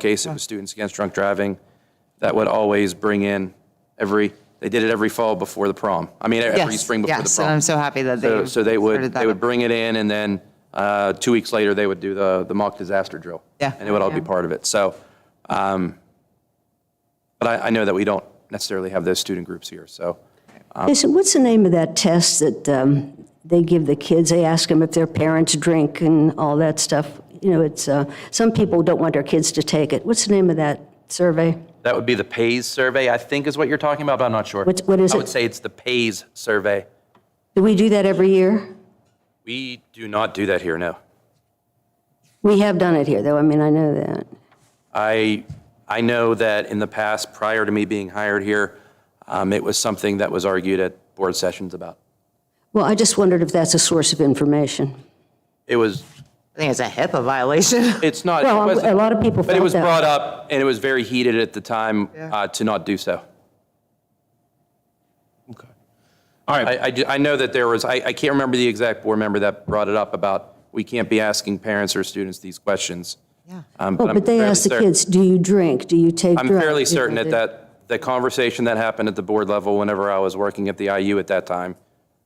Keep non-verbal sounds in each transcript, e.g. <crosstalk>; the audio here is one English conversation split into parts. case, it was Students Against Drunk Driving, that would always bring in every, they did it every fall before the prom. I mean, every Yes, spring before the yes, prom. and I'm so happy that So- they So they would, started that they would up. bring it in, and then uh, two weeks later, they would do the, the mock disaster drill. Yeah. And it would all be Yeah. part of it. So, um, but I, I know that we don't necessarily have those student groups here, so. Jason, what's the name of that test that um, they give the kids? They ask them if their parents drink and all that stuff. You know, it's, uh, some people don't want their kids to take it. What's the name of that survey? That would be the PAYS survey, I think is what you're talking about, but I'm not sure. What's- what is I it? would say it's the PAYS survey. Do we do that every year? We do not do that here, no. We have done it here, though, I mean, I know that. I, I know that in the past, prior to me being hired here, um, it was something that was argued at board sessions about. Well, I just wondered if that's a source of information. It was, I think it's a HIPAA violation. <laughs> it's not. it Well, I'm- wasn't- a lot of people But it felt was that. brought up, and it was very heated at the time uh, to not do so. Okay. All right. I, I do- I know that there was, I, I can't remember the exact board member that brought it up about, we can't be asking parents or students these questions. Yeah. Um, Oh, I'm but they fairly ask the certain- kids, do you drink? Do you take I'm drugs? fairly You know, certain that they- that, the conversation that happened at the board level whenever I was working at the IU at that time,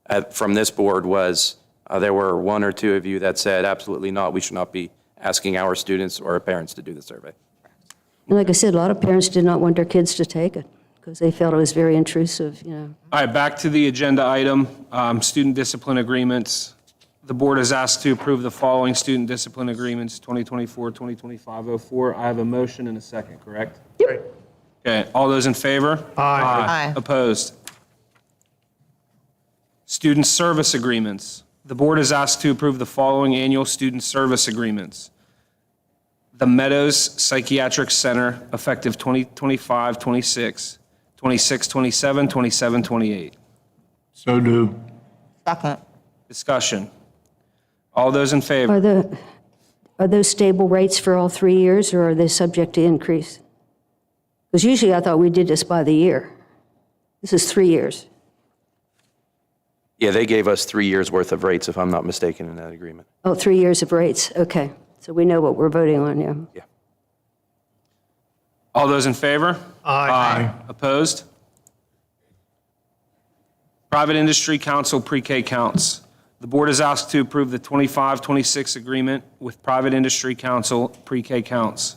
uh, from this board was, uh, there were one or two of you that said, absolutely not, we should not be asking our students or our parents to do the survey. And like I said, a lot of parents did not want their kids to take it because they felt it was very intrusive, you know. All right, back to the agenda item, um, student discipline agreements. The board is asked to approve the following student discipline agreements, 2024, 2025-04. I have a motion and a second, correct? Okay, all those in favor? Aye. Opposed? Student service agreements. The board is asked to approve the following annual student service agreements. The Meadows Psychiatric Center, effective 2025, 26, 26, 27, 27, 28. So do. Second. Discussion. All those in favor? Are the, are those stable rates for all three years, or are they subject to increase? Because usually I thought we did this by the year. This is three years. Yeah, they gave us three years' worth of rates, if I'm not mistaken, in that agreement. Oh, three years of rates, okay. So we know what we're voting on, yeah. Yeah. All those in favor? Aye. Opposed? Private Industry Council Pre-K Counts. The board is asked to approve the 25-26 agreement with Private Industry Council Pre-K Counts.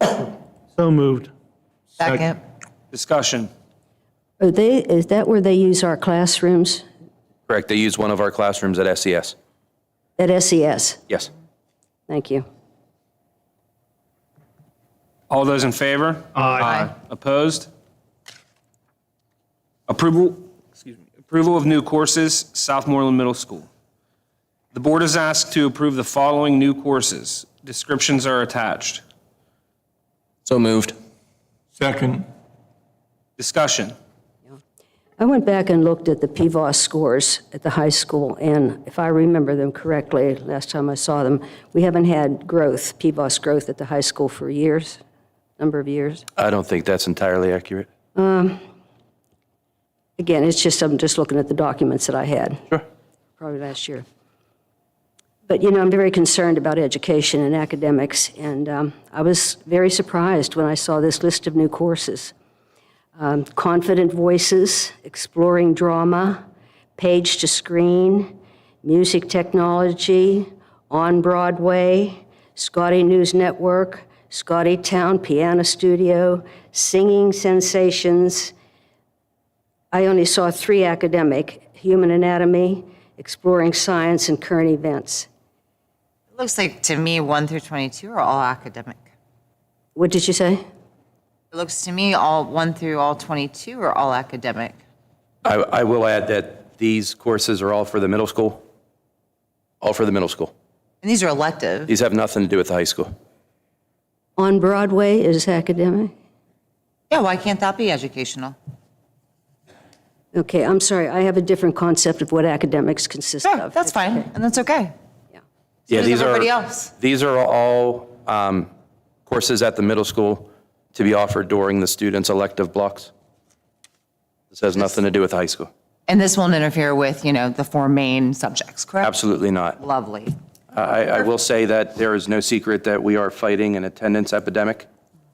So moved. Second. Discussion. Are they, is that where they use our classrooms Correct, they used one of our classrooms at SES. at SES? Yes. Thank you. All those in favor? Aye. Opposed? Approval, excuse me, approval of new courses, Southmoreland Middle School. The board is asked to approve the following new courses. Descriptions are attached. So moved. Second. Discussion. I went back and looked at the PVOS scores at the high school, and if I remember them correctly, last time I saw them, we haven't had growth, PVOS growth at the high school for years, number of years. I don't think that's entirely accurate. Again, it's just, I'm just looking at the documents that I had. Sure. Probably last year. But, you know, I'm very concerned about education and academics, and um, I was very surprised when I saw this list of new courses. Um, Confident Voices, Exploring Drama, Page to Screen, Music Technology, On Broadway, Scotty News Network, Scotty Town Piano Studio, Singing Sensations, I only saw three academic, human anatomy, exploring science, and current events. It looks like to me, 1 through 22 are all academic. What did you say? It looks to me, all 1 through all 22 are all academic. I, I will add that these courses are all for the middle school, all for the middle school. And these are elective. These have nothing to do with the high school. On Broadway is academic? Yeah, why can't that be educational? Okay, I'm sorry, I have a different concept of what academics consist Sure, of. that's fine, and that's okay. Yeah, does these are, everybody else. these are all um, courses at the middle school to be offered during the students' elective blocks. This has nothing to do with high school. And this won't interfere with, you know, the four main subjects, correct? Absolutely not. Lovely. I, I will say that there is no secret that we are fighting an attendance epidemic